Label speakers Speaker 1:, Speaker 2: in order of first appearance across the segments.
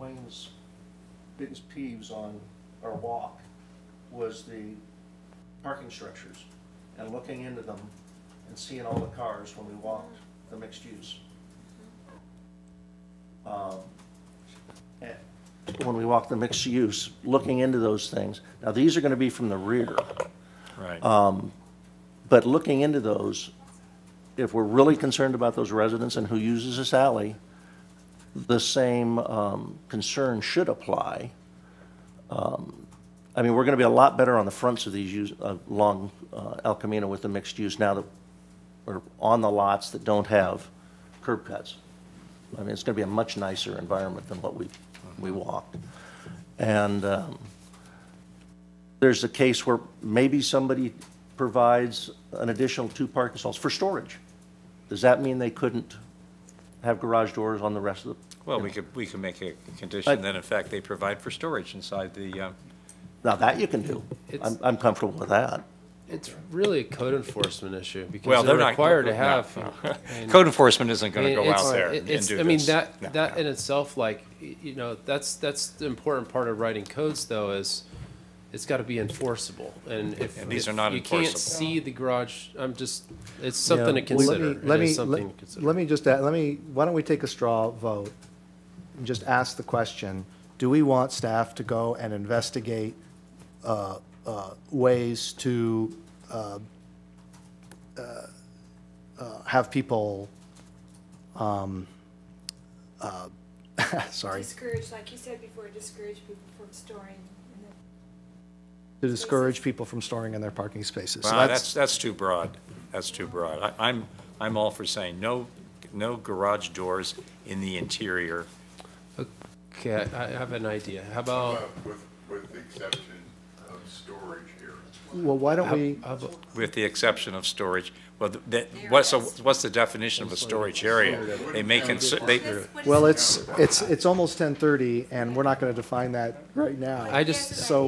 Speaker 1: Wayne's biggest peeves on our walk was the parking structures and looking into them and seeing all the cars when we walked the mixed use. Um, and When we walked the mixed use, looking into those things. Now, these are gonna be from the rear.
Speaker 2: Right.
Speaker 1: But looking into those, if we're really concerned about those residents and who uses this alley, the same um, concern should apply. Um, I mean, we're going to be a lot better on the fronts of these use, uh, along uh, El Camino with the mixed use now that we're on the lots that don't have curb cuts. I mean, it's going to be a much nicer environment than what we, we walked. And, um, there's a case where maybe somebody provides an additional two parking stalls for storage. Does that mean they couldn't have garage doors on the rest of the,
Speaker 2: Well, we could, we could make a condition that in fact they provide for storage inside the, uh,
Speaker 1: now that you can do. I'm,
Speaker 3: It's-
Speaker 1: I'm comfortable with that.
Speaker 3: It's really a code enforcement issue
Speaker 2: well,
Speaker 3: because
Speaker 2: they're
Speaker 3: they're
Speaker 2: not.
Speaker 3: required to
Speaker 2: no,
Speaker 3: have.
Speaker 2: no.
Speaker 3: I mean,
Speaker 2: Code enforcement isn't
Speaker 3: I
Speaker 2: going to
Speaker 3: mean,
Speaker 2: go
Speaker 3: it's-
Speaker 2: out there and do
Speaker 3: it's-
Speaker 2: this.
Speaker 3: I mean, that,
Speaker 2: No,
Speaker 3: that
Speaker 2: no.
Speaker 3: in itself, like, y- you know, that's, that's the important part of writing codes though is it's gotta be enforceable and if.
Speaker 2: And these
Speaker 3: if
Speaker 2: are not
Speaker 3: You
Speaker 2: enforceable.
Speaker 3: can't see the garage, I'm just, it's something to
Speaker 4: Yeah, well, let
Speaker 3: consider.
Speaker 4: me-
Speaker 3: It
Speaker 4: Let
Speaker 3: is
Speaker 4: me,
Speaker 3: something
Speaker 4: let-
Speaker 3: to consider.
Speaker 4: let me just, add- let me, why don't we take a straw vote and just ask the question, do we want staff to go and investigate uh, uh, ways to uh, uh, uh, have people, um, uh, sorry,
Speaker 5: Discourage, like you said before, discourage people from storing. in the-
Speaker 4: to discourage people from storing in their parking spaces? So
Speaker 2: Well, that's, that's too broad. That's too broad. I- I'm, I'm all for saying no, no garage doors in the interior.
Speaker 3: Okay, I I have an idea. How about,
Speaker 6: Uh, With, with the exception of storage areas.
Speaker 4: Well, why don't we,
Speaker 3: how about-
Speaker 2: with the exception of storage. Well, th- that, what's, so what's the definition of a storage area? They may consider, they,
Speaker 4: well, it's, it's, it's almost 10:30 and we're not going to define that right now.
Speaker 3: I just-
Speaker 5: Yes,
Speaker 4: So-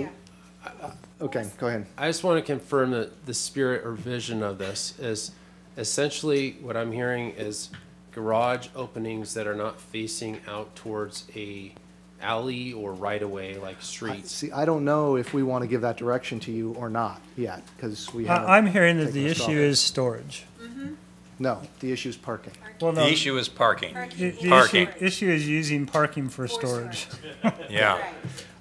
Speaker 5: yeah.
Speaker 4: Okay, go ahead.
Speaker 3: I just want to confirm that the spirit or vision of this is essentially what I'm hearing is garage openings that are not facing out towards a alley or right away like streets.
Speaker 4: See, I don't know if we want to give that direction to you or not yet, because we haven't.
Speaker 7: I- I'm hearing that
Speaker 4: taken
Speaker 7: the
Speaker 4: a stop.
Speaker 7: issue is storage.
Speaker 4: No, the issue is parking.
Speaker 7: Well, no,
Speaker 2: the issue is parking.
Speaker 7: the-
Speaker 5: Parking.
Speaker 7: the
Speaker 2: Parking.
Speaker 7: issue- Issue is using parking for storage.
Speaker 2: Yeah.
Speaker 5: Right.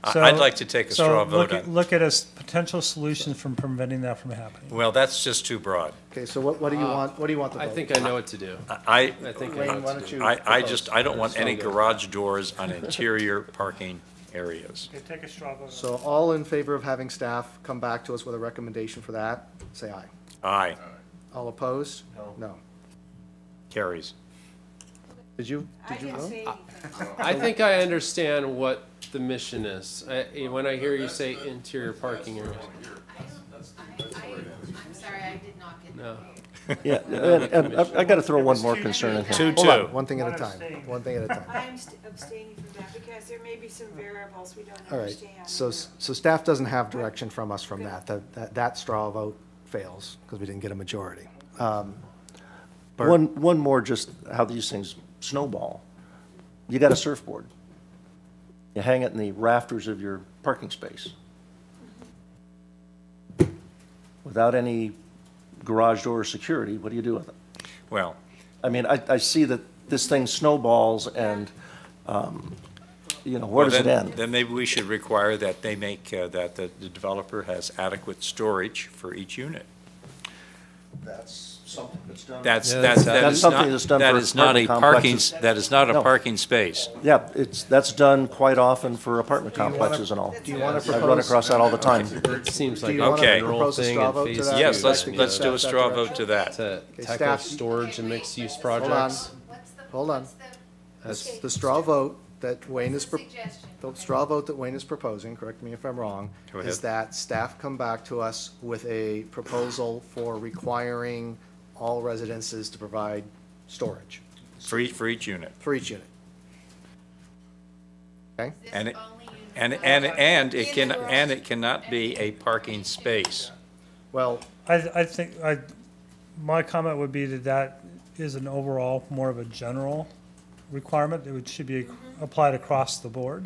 Speaker 2: I-
Speaker 7: So-
Speaker 2: I'd like to take a
Speaker 7: so
Speaker 2: straw vote
Speaker 7: look at-
Speaker 2: on,
Speaker 7: Look at a s- potential solution from preventing that from happening.
Speaker 2: well, that's just too broad.
Speaker 4: Okay, so what, what do you want, what do you want the vote?
Speaker 3: Uh, I think I know what to do.
Speaker 2: I,
Speaker 3: I think I know
Speaker 4: Wayne, why
Speaker 3: what to
Speaker 4: don't
Speaker 3: do.
Speaker 4: you?
Speaker 2: I, I
Speaker 4: propose?
Speaker 2: just, I don't want any garage doors on interior parking areas.
Speaker 7: Take a straw vote.
Speaker 4: So all in favor of having staff come back to us with a recommendation for that, say aye.
Speaker 2: Aye,
Speaker 4: All opposed?
Speaker 1: No.
Speaker 4: No.
Speaker 2: carries.
Speaker 4: Did you,
Speaker 5: I
Speaker 4: did you
Speaker 5: didn't
Speaker 4: vote?
Speaker 5: say anything.
Speaker 3: I think I understand what the mission is. I, eh, when I hear you say interior parking areas.
Speaker 8: I'm sorry, I did not get
Speaker 3: No.
Speaker 1: Yeah, and, and I've, i got to throw one more concern in here.
Speaker 2: Two,
Speaker 4: Hold on,
Speaker 2: two.
Speaker 4: one thing at a
Speaker 7: One
Speaker 4: time,
Speaker 7: abstain.
Speaker 4: one thing at a time.
Speaker 5: I am st- abstaining from that because there may be some variables we don't
Speaker 4: All right,
Speaker 5: understand.
Speaker 4: so, s- so staff doesn't have direction from us from that, that, that- that straw vote fails, because we didn't get a majority.
Speaker 1: One, one more, just how these things snowball. You got a surfboard. You hang it in the rafters of your parking space. Without any garage door or security, what do you do with it?
Speaker 2: Well,
Speaker 1: I mean, I, I see that this thing snowballs and, um, you know, where does it
Speaker 2: then-
Speaker 1: end?
Speaker 2: Then maybe we should require that they make, uh, that the the developer has adequate storage for each unit.
Speaker 1: That's something that's done.
Speaker 2: That's,
Speaker 3: Yeah,
Speaker 2: that's,
Speaker 3: that's-
Speaker 2: that
Speaker 1: That's
Speaker 2: is
Speaker 1: something
Speaker 2: not,
Speaker 1: that's done
Speaker 2: that
Speaker 1: for
Speaker 2: is not a
Speaker 1: apartment
Speaker 2: parking,
Speaker 1: complexes.
Speaker 2: that is not a
Speaker 1: No.
Speaker 2: parking space.
Speaker 1: Yeah, it's, that's done quite often for apartment complexes and all.
Speaker 5: do you wanna
Speaker 1: I run
Speaker 4: propose-
Speaker 1: across that all the time.
Speaker 3: It seems
Speaker 4: Do
Speaker 3: like.
Speaker 4: you wanna
Speaker 2: Okay.
Speaker 4: propose a
Speaker 3: thing
Speaker 4: straw
Speaker 3: and
Speaker 4: vote to
Speaker 3: phase
Speaker 4: that?
Speaker 3: two,
Speaker 2: Yes, let's,
Speaker 4: I think
Speaker 2: let's
Speaker 4: that's-
Speaker 2: do a straw vote to that.
Speaker 3: uh, To tackle
Speaker 4: staff-
Speaker 3: storage and mixed-use
Speaker 4: Hold on,
Speaker 3: projects.
Speaker 8: What's the,
Speaker 4: Hold on.
Speaker 8: what's the
Speaker 3: That's-
Speaker 4: the straw vote that Wayne is, pro-
Speaker 8: suggestion?
Speaker 4: the straw vote that Wayne is proposing, correct me if I'm wrong,
Speaker 2: Go
Speaker 4: is
Speaker 2: ahead.
Speaker 4: that staff come back to us with a proposal for requiring all residences to provide storage
Speaker 2: For each, for each unit.
Speaker 4: for each unit. Okay?
Speaker 8: This
Speaker 2: and it-
Speaker 8: only unit-
Speaker 2: And, and, and it can, and it cannot be a parking space.
Speaker 4: Well,
Speaker 7: I, I think, I, my comment would be that that is Mm-hmm. an overall, more of a general requirement. It would, should be applied across the board.